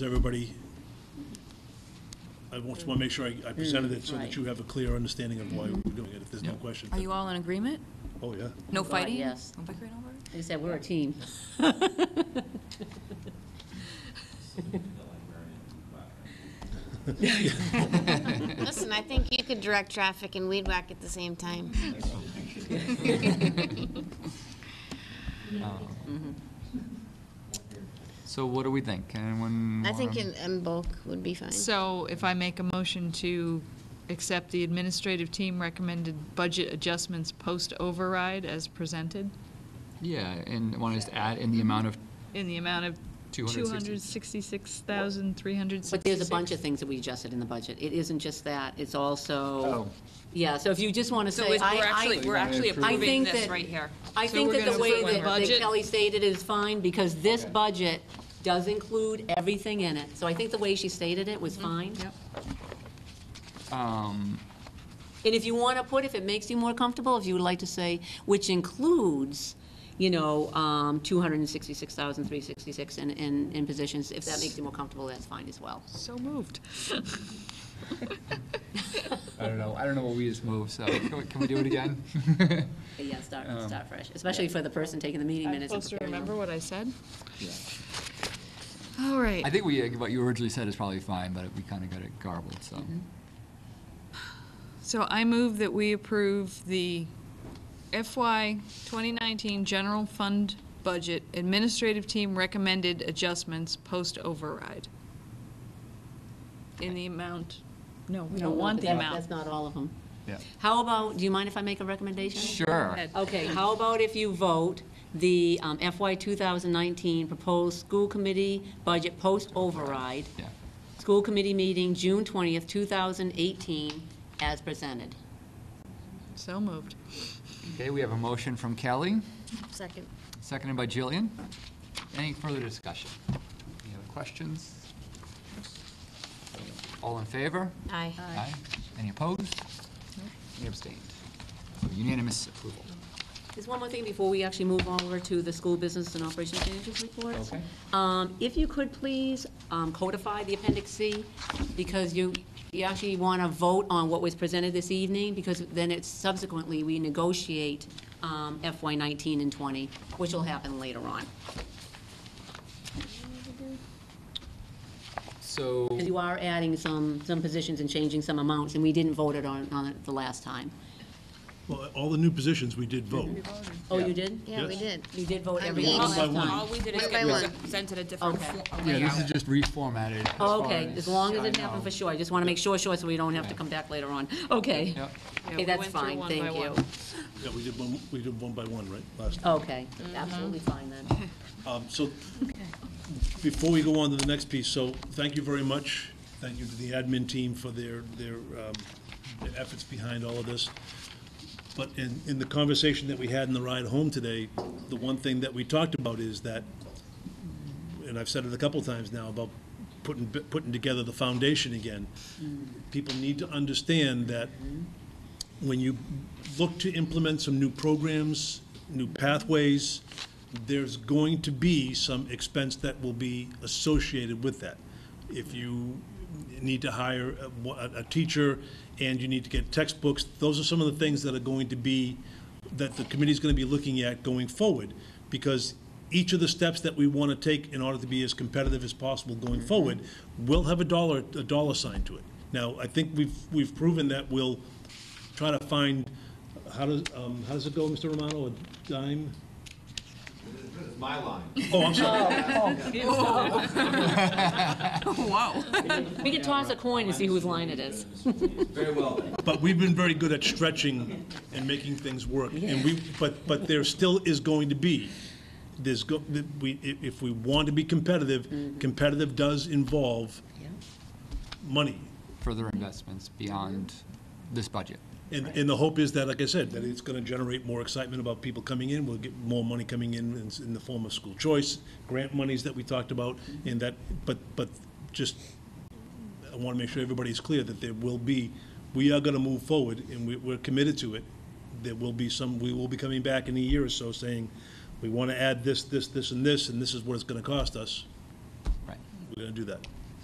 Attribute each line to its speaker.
Speaker 1: Is everybody, I want to make sure I I presented it so that you have a clear understanding of why we're doing it, if there's no question.
Speaker 2: Are you all in agreement?
Speaker 1: Oh, yeah.
Speaker 2: No
Speaker 3: God,
Speaker 2: fighting?
Speaker 3: yes.
Speaker 2: No bickering over it?
Speaker 3: Like I said, we're a team.
Speaker 4: Listen, I think you could direct traffic and weed whack at the same time.
Speaker 5: So what do we think? Can anyone?
Speaker 4: I think
Speaker 5: wanna-
Speaker 4: in, in bulk would be fine.
Speaker 6: So if I make a motion to accept the administrative team recommended budget adjustments post override as presented
Speaker 5: Yeah, and want to just add in the
Speaker 4: Mm-hmm.
Speaker 5: amount of,
Speaker 6: in the amount of two
Speaker 5: 260.
Speaker 6: hundred sixty-six thousand three hundred
Speaker 3: But
Speaker 6: sixty-six.
Speaker 3: there's a bunch of things that we adjusted in the budget. It isn't just that, it's also, yeah, so if you just want to
Speaker 2: So
Speaker 3: say,
Speaker 2: is-
Speaker 3: I,
Speaker 2: we're actually,
Speaker 3: I,
Speaker 2: we're actually
Speaker 5: approve it.
Speaker 3: I
Speaker 2: approving
Speaker 3: think
Speaker 2: this
Speaker 3: that-
Speaker 2: right here.
Speaker 3: I
Speaker 6: so
Speaker 3: think
Speaker 6: we're
Speaker 3: that the
Speaker 6: gonna
Speaker 3: way
Speaker 6: approve one
Speaker 3: that that
Speaker 6: budget?
Speaker 3: Kelly stated it is fine, because this budget does include everything in it. So I think the way she stated it
Speaker 2: Mm-hmm.
Speaker 3: was fine. Yep.
Speaker 5: um,
Speaker 3: And if you want to put, if it makes you more comfortable, if you would like to say, which includes, you know, um, 266,366 in, in, in positions, if that makes you more comfortable, that's fine as well.
Speaker 6: So moved.
Speaker 5: I don't know, I don't know what we just moved, so can we, can we do it again?
Speaker 3: But yeah, start,
Speaker 6: Um,
Speaker 3: start fresh, especially for the person taking the meeting
Speaker 6: I'm
Speaker 3: minutes. and
Speaker 6: supposed to
Speaker 3: preparing them.
Speaker 6: remember what I said? All right.
Speaker 5: I think we, uh, what you originally said is probably fine, but we kind of got it garbled, so.
Speaker 4: Mm-hmm.
Speaker 6: So I move that we approve the FY 2019 general fund budget administrative team recommended adjustments post override. In the amount, no, we
Speaker 3: No,
Speaker 6: don't want
Speaker 3: but
Speaker 6: the
Speaker 3: that- That's
Speaker 6: amount.
Speaker 3: not all of them.
Speaker 5: Yeah.
Speaker 3: How about, do you mind if I make a recommendation?
Speaker 5: Sure.
Speaker 3: Okay, how about if you vote the um, FY 2019 proposed school committee budget post-override,
Speaker 5: Yeah.
Speaker 3: school committee meeting June 20th, 2018, as presented?
Speaker 6: So moved.
Speaker 5: Okay, we have a motion from Kelly,
Speaker 4: Second.
Speaker 5: seconded by Jillian. Any further discussion? Any other questions? All in favor?
Speaker 4: Aye.
Speaker 5: Aye. Any opposed? Any abstained? So Unanimous approval.
Speaker 3: There's one more thing before we actually move over to the school business and operations managers report.
Speaker 5: Okay.
Speaker 3: Um, If you could please um, codify the Appendix C, because you, you actually want to vote on what was presented this evening, because then it's subsequently, we negotiate um, FY 19 and 20, which will happen later on.
Speaker 5: So.
Speaker 3: 'Cause you are adding some, some positions and changing some amounts, and we didn't vote it on, on it the last time.
Speaker 1: Well, all the new positions, we did vote.
Speaker 3: Oh, you did?
Speaker 4: Yeah, we
Speaker 1: Yes.
Speaker 4: did.
Speaker 3: You did vote
Speaker 4: I
Speaker 3: every
Speaker 4: mean-
Speaker 3: last
Speaker 1: One by one.
Speaker 3: time?
Speaker 2: All we did is
Speaker 4: One by
Speaker 2: get was
Speaker 4: one.
Speaker 2: presented a different
Speaker 3: Okay.
Speaker 2: fo-
Speaker 5: Yeah, this is
Speaker 2: layout.
Speaker 5: just reformatted. as
Speaker 3: Oh,
Speaker 5: far
Speaker 3: Okay, as long as
Speaker 5: I
Speaker 3: it happened
Speaker 5: know.
Speaker 3: for sure, I just want to make sure, sure, so we don't have to
Speaker 5: Yeah.
Speaker 3: come back later on. Okay.
Speaker 5: Yep.
Speaker 6: Yeah,
Speaker 3: Okay,
Speaker 6: we
Speaker 3: that's
Speaker 6: went through
Speaker 3: fine,
Speaker 6: one by
Speaker 3: thank
Speaker 6: one.
Speaker 3: you.
Speaker 1: Yeah, we did one, we did one by one, right, last time?
Speaker 3: Okay,
Speaker 6: Mm-hmm.
Speaker 3: absolutely fine then.
Speaker 1: Um, So, before we go on to the next piece, so, thank you very much. Thank you to the admin team for their, their um, their efforts behind all of this. But in, in the conversation that we had in the ride home today, the one thing that we talked about is that, and I've said it a couple times now, about putting, putting together the foundation again. People need to understand that when you look to implement some new programs, new pathways, there's going to be some expense that will be associated with that. If you need to hire a- a, a teacher and you need to get textbooks, those are some of the things that are going to be, that the committee's going to be looking at going forward. Because each of the steps that we want to take in order to be as competitive as possible going forward will have a dollar, a dollar sign to it. Now, I think we've, we've proven that we'll try to find, how does, um, how does it go, Mr. Romano, a dime?
Speaker 7: It's my line.
Speaker 1: Oh, I'm sorry,
Speaker 3: We could toss a coin and see whose line it is.
Speaker 7: Very well then.
Speaker 1: but we've been very good at stretching and making things work, and we, but, but there still is going to be, there's go, that we, i- if we want to be competitive, competitive does involve money,
Speaker 5: Further investments beyond this budget.
Speaker 1: and, and the hope is that, like I said, that it's gonna generate more excitement about people coming in, we'll get more money coming in in, s- in the form of school choice, grant monies that we talked about, and that, but, but just, I wanna make sure everybody's clear that there will be, we are gonna move forward, and we, we're committed to it. There will be some, we will be coming back in a year or so saying, we wanna add this, this, this, and this, and this is what it's gonna cost us.
Speaker 5: Right.
Speaker 1: We're gonna do that.